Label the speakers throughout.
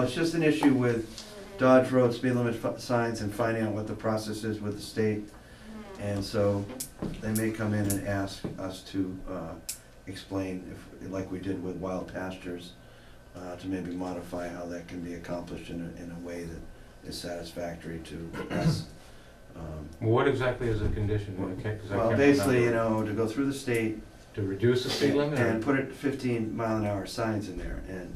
Speaker 1: it's just an issue with Dodge Road speed limit fi- signs and finding out what the process is with the state. And so they may come in and ask us to uh, explain, if, like we did with wild pastures, uh, to maybe modify how that can be accomplished in a, in a way that is satisfactory to us. Um,
Speaker 2: Well, What exactly is the condition? Okay, 'cause I
Speaker 1: Well,
Speaker 2: can't
Speaker 1: basically, you
Speaker 2: remember.
Speaker 1: know, to go through the state
Speaker 2: To reduce the speed limit? or-
Speaker 1: and put it fifteen mile an hour signs in there, and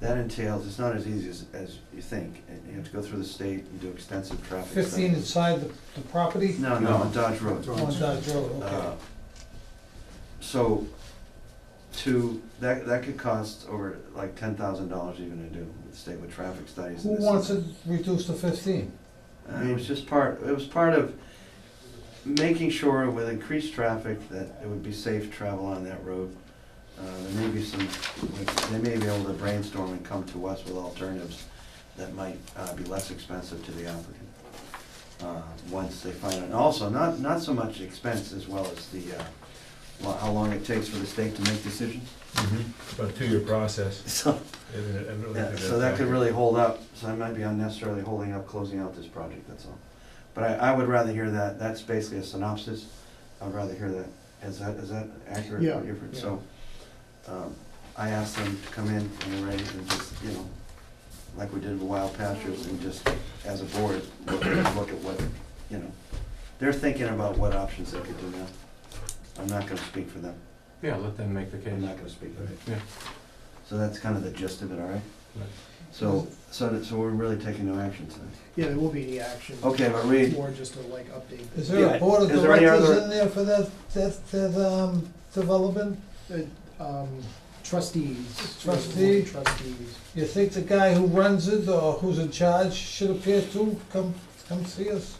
Speaker 1: that entails, it's not as easy as, as you think, and you have to go through the state and do extensive traffic studies.
Speaker 3: Fifteen inside the, the property?
Speaker 1: No, no, on Dodge Road.
Speaker 3: On Dodge Road, okay.
Speaker 1: Uh, So, to, that, that could cost over like ten thousand dollars even to do, with the state with traffic studies.
Speaker 3: Who
Speaker 1: and this
Speaker 3: wants
Speaker 1: and-
Speaker 3: it reduced to fifteen?
Speaker 1: I mean, it was just part, it was part of making sure with increased traffic that it would be safe to travel on that road. Uh, there may be some, they may be able to brainstorm and come to us with alternatives that might, uh, be less expensive to the applicant. Uh, once they find it, and also not, not so much expense as well as the, uh, lo- how long it takes for the state to make decisions.
Speaker 4: It's about a two-year process,
Speaker 1: So,
Speaker 4: isn't it? I really
Speaker 1: yeah,
Speaker 4: think
Speaker 1: so that could really hold up, so I might be unnecessarily holding up closing out this project, that's all. But I, I would rather hear that, that's basically a synopsis, I'd rather hear that, is that, is that accurate?
Speaker 5: Yeah.
Speaker 1: Gifford? So, um, I asked them to come in and they're ready and just, you know, like we did with Wild Pastures and just as a board, look at look at what, you know, they're thinking about what options they could do now. I'm not gonna speak for them,
Speaker 2: Yeah, let them make the
Speaker 1: I'm
Speaker 2: case.
Speaker 1: not gonna speak for them.
Speaker 2: Yeah.
Speaker 1: So that's kind of the gist of it, all right?
Speaker 2: Right.
Speaker 1: So, so, that- so we're really taking no action tonight.
Speaker 5: Yeah, there will be any action.
Speaker 1: Okay, but
Speaker 5: It's
Speaker 1: read,
Speaker 5: more just to like update.
Speaker 3: Is
Speaker 1: Yeah,
Speaker 3: there a board of
Speaker 1: is there any
Speaker 3: directors
Speaker 1: other-
Speaker 3: in there for that, that, that, um, development?
Speaker 5: Um, Trustees.
Speaker 3: Trustee.
Speaker 5: Trustees.
Speaker 3: You think the guy who runs it or who's in charge should appear too? Come, come see us?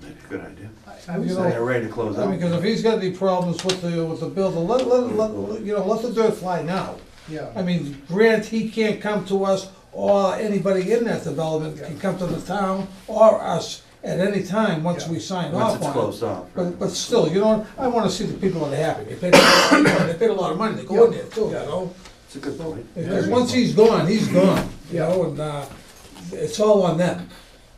Speaker 1: Maybe a good idea.
Speaker 5: I would
Speaker 3: You
Speaker 1: So
Speaker 3: know,
Speaker 5: say,
Speaker 1: they're ready to close
Speaker 3: I
Speaker 1: up.
Speaker 3: mean, because if he's got any problems with the, with the builder, let, let, let, you know, let the dirt fly now. I
Speaker 5: yeah,
Speaker 3: mean, grant he can't come to us, or anybody in that development can come to the town or us at any time once we sign
Speaker 1: Once
Speaker 3: off
Speaker 1: it's
Speaker 3: on it.
Speaker 1: closed off.
Speaker 3: But,
Speaker 1: right.
Speaker 3: but still, you know, I wanna see the people that are happy. They paid, a lot of money- they paid a lot of money to go in there too, you know?
Speaker 1: It's a good point.
Speaker 3: Because once he's gone, he's gone, you
Speaker 5: Yeah.
Speaker 3: know, and, uh, it's all on them.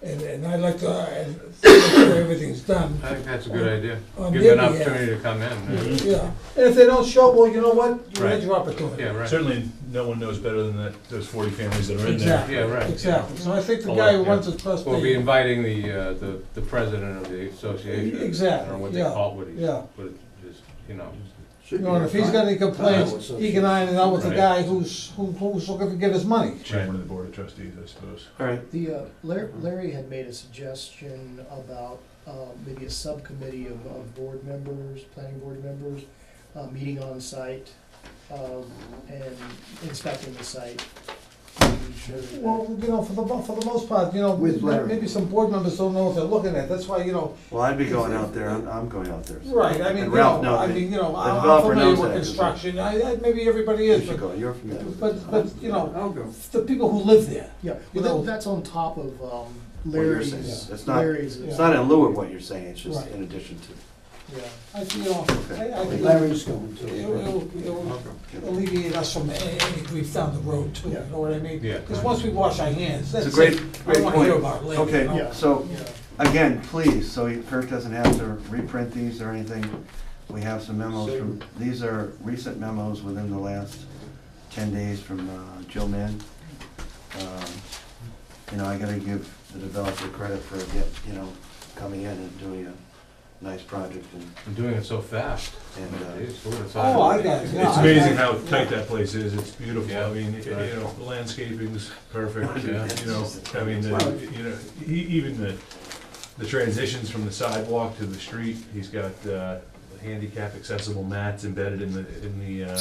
Speaker 3: And, and I'd like to, uh, and make sure everything's done.
Speaker 2: I think that's a good
Speaker 3: Um,
Speaker 2: idea.
Speaker 3: On
Speaker 2: Give them an
Speaker 3: their behalf.
Speaker 2: opportunity to come in. uh,
Speaker 3: Yeah, and if they don't show, well, you know what? You had
Speaker 4: Right.
Speaker 3: your opportunity.
Speaker 2: Yeah, right.
Speaker 4: Certainly, no one knows better than that, those forty families that are in there.
Speaker 3: Exactly.
Speaker 2: Yeah, right.
Speaker 3: Exactly. So I think the
Speaker 2: Oh,
Speaker 3: guy who
Speaker 2: yeah.
Speaker 3: runs the trust.
Speaker 2: We'll
Speaker 3: they-
Speaker 2: be inviting the, uh, the, the president of the association. I don't know what
Speaker 3: Exactly,
Speaker 2: they
Speaker 3: yeah,
Speaker 2: call it, what he's,
Speaker 3: yeah.
Speaker 2: what it just, you know.
Speaker 3: You know, and if he's got any complaints, he can iron it out with the
Speaker 4: Right.
Speaker 3: guy who's, who- who's looking to get his money.
Speaker 4: Chairman of the Board of Trustees, I suppose.
Speaker 1: All right,
Speaker 5: the, uh, Lar- Larry had made a suggestion about, uh, maybe a subcommittee of, of board members, planning board members, uh, meeting on site, um, and inspecting the site. making sure that-
Speaker 3: Well, you know, for the, mo- for the most part, you know,
Speaker 1: With Larry.
Speaker 3: maybe some board members don't know what they're looking at, that's why, you know.
Speaker 1: well, I'd be going out there, I'm, I'm going out there. so-
Speaker 3: Right, I mean, you
Speaker 1: And Ralph,
Speaker 3: know,
Speaker 1: no,
Speaker 3: I mean,
Speaker 1: they-
Speaker 3: you know,
Speaker 1: the
Speaker 3: I'm- I'm
Speaker 1: developer knows
Speaker 3: familiar with
Speaker 1: that.
Speaker 3: construction, I, I, maybe everybody
Speaker 1: you
Speaker 3: is,
Speaker 1: should
Speaker 3: but,
Speaker 1: go, you're familiar with this.
Speaker 3: but, but, you know,
Speaker 6: I'll go.
Speaker 3: the people who live there.
Speaker 5: Yeah,
Speaker 3: You
Speaker 5: well,
Speaker 3: know-
Speaker 5: that- that's on top of, um,
Speaker 1: What you're
Speaker 5: Larry's.
Speaker 1: saying, it's not-
Speaker 5: Larry's-
Speaker 1: It's not in lieu of what you're saying, it's just
Speaker 3: Right.
Speaker 1: in addition to.
Speaker 5: Yeah.
Speaker 3: I, you know, I, I think it'll,
Speaker 6: Larry's going to.
Speaker 3: it'll, it'll alleviate us from a- any grief down the road too, you know what I mean?
Speaker 2: Yeah.
Speaker 3: Because once we wash our hands, that's
Speaker 1: It's a
Speaker 3: it.
Speaker 1: great, great
Speaker 3: I don't wanna hear
Speaker 1: point.
Speaker 3: about it later. you know?
Speaker 1: Okay,
Speaker 5: Yeah.
Speaker 1: so,
Speaker 5: Yeah.
Speaker 1: again, please, so he- Kirk doesn't have to reprint these or anything, we have some memos from, these are recent memos within the last ten days from uh, Jill Mann. Um, You know, I gotta give the developer credit for, get you know, coming in and doing a nice project and,
Speaker 2: I'm doing it so fast.
Speaker 1: and, uh,
Speaker 2: Jeez, what a time.
Speaker 3: Oh, I got it, yeah.
Speaker 4: It's
Speaker 3: I-
Speaker 4: amazing
Speaker 3: I-
Speaker 4: how tight
Speaker 3: yeah.
Speaker 4: that place is, it's beautiful, I mean, you
Speaker 2: Yeah.
Speaker 4: know, landscaping's perfect, you
Speaker 2: Yeah.
Speaker 4: know, I mean, the- you know, e- even the, the transitions from the sidewalk to the street, he's got, uh, handicap accessible mats embedded in the, in the, uh,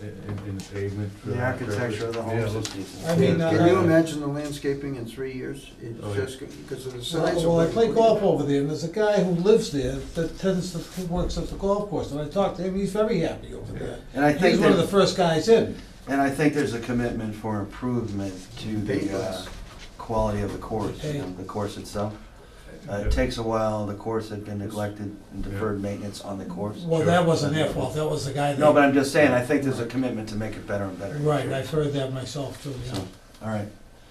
Speaker 4: in, in the pavement. for
Speaker 1: the
Speaker 4: that purpose.
Speaker 1: architecture of the homes
Speaker 2: Yeah.
Speaker 1: is decent.
Speaker 3: I mean, uh,
Speaker 6: Can you imagine the landscaping in three years?
Speaker 4: Oh,
Speaker 6: It's
Speaker 4: yeah.
Speaker 6: just, because of the size of.
Speaker 3: Well, I
Speaker 6: what-
Speaker 3: play golf over there, and there's a guy who lives there that tends to, who works at the golf course, and I talked to him, he's very happy over there.
Speaker 1: And I
Speaker 3: He's
Speaker 1: think,
Speaker 3: one of the
Speaker 1: that-
Speaker 3: first guys in.
Speaker 1: and I think there's a commitment for improvement to the, uh,
Speaker 6: Papers.
Speaker 1: quality of the course, you know, the course itself. Uh, It takes a while, the course had been neglected and deferred maintenance on the course.
Speaker 3: Well, that wasn't their fault, that was the guy that.
Speaker 1: No, but I'm just saying, I think there's a commitment to make it better and better.
Speaker 3: Right, I've heard that myself too, yeah.
Speaker 1: So, All right,